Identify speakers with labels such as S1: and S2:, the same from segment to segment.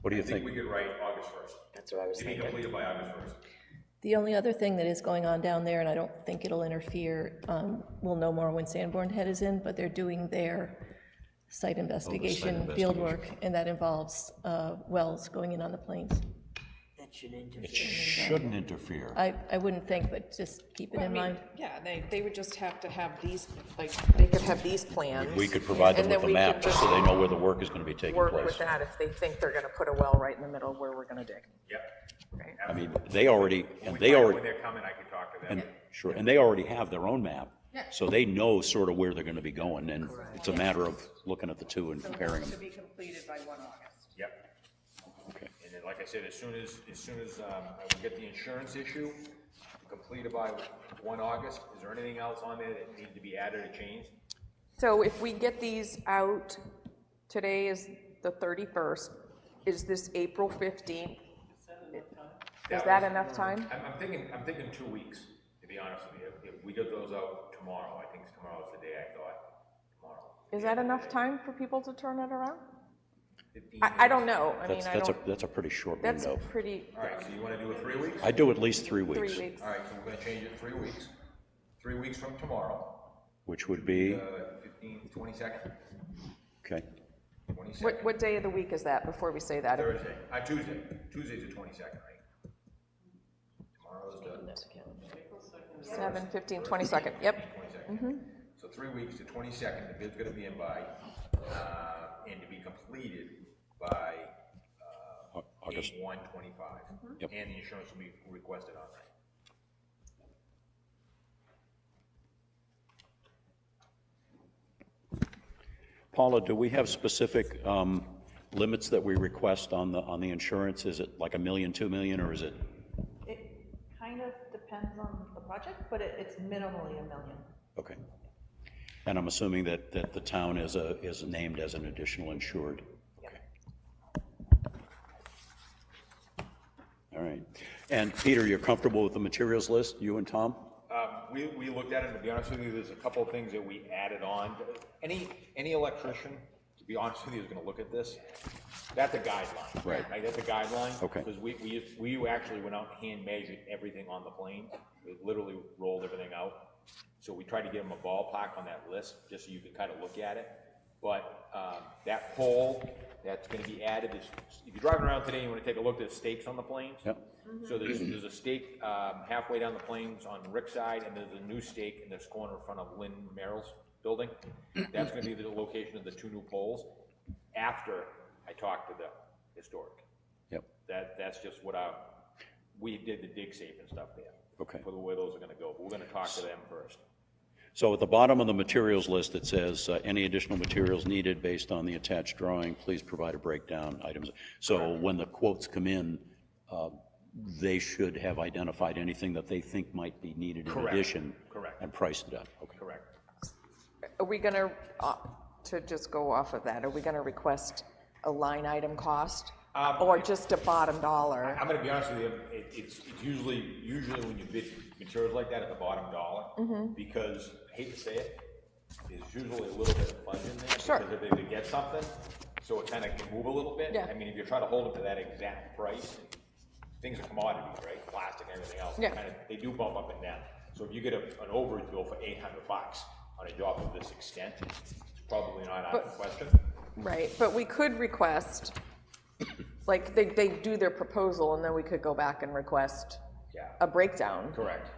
S1: What do you
S2: uh, I think
S1: think?
S2: we could write August first,
S3: That's what I was
S2: to be
S3: thinking.
S2: completed by August first.
S4: The only other thing that is going on down there, and I don't think it'll interfere, um, we'll know more when Sanborn Head is in, but they're doing their Oh, site investigation, field work, and that involves uh, wells going in on the plains.
S3: That should interfere.
S1: It shouldn't interfere.
S4: I, I wouldn't think, but just keep it
S5: I
S4: in
S5: mean,
S4: mind.
S5: Yeah, they, they would just have to have these, like, they could have these plans.
S1: We could provide them
S5: and then
S1: with a
S5: we
S1: map,
S5: could
S1: just so they know where the work is gonna be taking
S5: Work with
S1: place.
S5: that if they think they're gonna put a well right in the middle where we're gonna dig.
S2: Yep.
S5: Right.
S1: I mean, they already, and
S2: When
S1: they
S2: I-
S1: already,
S2: When they're coming, I can talk to them.
S1: and, sure, and they already have their own map. So they know sort of where they're gonna be going, and it's a matter of looking at the two and comparing them.
S6: To be completed by 1 August.
S2: Yep.
S1: Okay.
S2: And then, like I said, as soon as, as soon as um, I will get the insurance issue completed by one August, is there anything else on there that needs to be added or changed?
S5: So if we get these out, today is the 31st, is this April 15th? Is that enough time?
S2: I'm, I'm thinking, I'm thinking two weeks, to be honest with you. If- If we get those out tomorrow, I think tomorrow's the day I thought, tomorrow.
S5: Is that enough time for people to turn it around?
S2: 15
S5: I, I don't know, I mean,
S1: That's,
S5: I
S1: that's a,
S5: don't,
S1: that's a pretty short
S5: that's
S1: window.
S5: pretty,
S2: All right, so you want to do it three weeks?
S1: I do at least three weeks,
S5: three weeks.
S2: All right, so we're going to change it three weeks. Three weeks from tomorrow,
S1: which would be,
S2: uh, 15th, 22nd,
S1: okay,
S2: 22nd,
S5: What, what day of the week is that, before we say that?
S2: Thursday, uh, Tuesday. Tuesday's the 22nd, right? Tomorrow's the
S5: Seven, fifteen, twenty-second, yep.
S2: 22nd.
S5: Mm-hmm.
S2: So three weeks to 22nd, the bid's going to be in by, uh, and to be completed by
S1: Au- August,
S2: 8/1/25.
S5: Mm-hmm.
S1: Yep.
S2: And the insurance will be requested on that.
S1: Paula, do we have specific um, limits that we request on the, on the insurance? Is it like a million, two million, or is it?
S6: It kind of depends on the project, but it, it's minimally a million.
S1: Okay. And I'm assuming that, that the town is a, is named as an additional insured? Okay. All right. And Peter, you're comfortable with the materials list, you and Tom?
S2: Um, We, we looked at it, and to be honest with you, there's a couple of things that we added on. Any, any electrician, to be honest with you, is gonna look at this. That's a guideline.
S1: Right.
S2: That's a guideline.
S1: Okay.
S2: Because we, we, we actually went out and hand measured everything on the plane. We literally rolled everything out. So we tried to give them a ballpark on that list, just so you could kind of look at it. But um, that pole that's gonna be added, is- if you're driving around today, you wanna take a look, there's stakes on the planes.
S1: Yep.
S2: So there's, there's a stake um, halfway down the plains on Rick's side, and there's a new stake in this corner in front of Lynn Merrill's building. That's gonna be the location of the two new poles, after I talked to the historic.
S1: Yep,
S2: That, that's just what I, we did the dig safe and stuff there.
S1: okay.
S2: For the way those are gonna go, but we're gonna talk to them first.
S1: So at the bottom of the materials list, it says, uh, any additional materials needed based on the attached drawing, please provide a breakdown items. So when the quotes come in, uh, they should have identified anything that they think might be needed in
S2: Correct.
S1: addition.
S2: Correct.
S1: And priced it up, okay.
S2: Correct.
S5: Are we gonna, uh, to just go off of that, are we gonna request a line item cost?
S2: Um,
S5: Or just a bottom dollar?
S2: I'm gonna be honest with you, it, it's, it's usually, usually when you bid materials like that at the bottom dollar,
S5: Mm-hmm.
S2: because, I hate to say it, there's usually a little bit of fudge in there.
S5: Sure.
S2: Because if they could get something, so it kinda can move a little bit.
S5: Yeah.
S2: I mean, if you're trying to hold it to that exact price, things are commodities, right, plastic and everything else. they
S5: Yeah.
S2: kinda- They do bump up and down, so if you get a, an overage bill for eight hundred bucks on a job of this extent, it's probably not out of the question.
S5: Right, but we could request, like, they, they do their proposal, and then we could go back and request
S2: Yeah.
S5: a breakdown,
S2: Correct,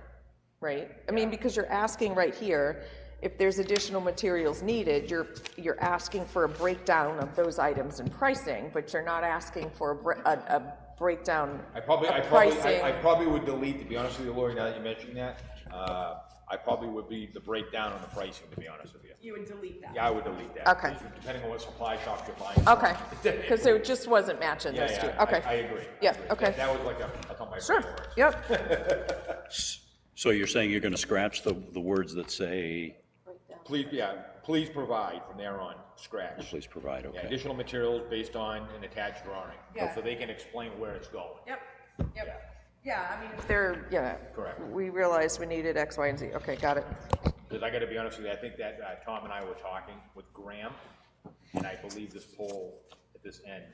S5: right? I mean, because you're asking right here, if there's additional materials needed, you're, you're asking for a breakdown of those items and pricing, but you're not asking for a, bre- a, a breakdown
S2: I probably,
S5: of
S2: I probably,
S5: pricing.
S2: I, I probably would delete, to be honest with you, Lori, now that you mentioned that, uh, I probably would be the breakdown on the pricing, to be honest with you.
S6: You would delete that.
S2: Yeah, I would delete that.
S5: Okay.
S2: Just Depending on what supply shop you're buying. from.
S5: Okay, because it just wasn't matching
S2: Yeah,
S5: those two,
S2: yeah, I-
S5: okay.
S2: I agree. I
S5: Yeah,
S2: agree.
S5: okay.
S2: That- That was like a, I thought my.
S5: Sure,
S2: brain worked.
S5: yep,
S1: So you're saying you're going to scratch the, the words that say,
S2: Please, yeah, please provide from there on, scratch.
S1: please provide,
S2: Yeah,
S1: okay?
S2: additional materials based on an attached drawing, so they can explain where it's going.
S6: Yep,
S2: Yeah.
S6: yep. Yeah, I mean,
S5: there, yeah.
S2: Correct.
S5: We realized we needed X, Y, and Z, okay, got it.
S2: Because I gotta be honest with you, I think that, uh, Tom and I were talking with Graham, and I believe this poll at this end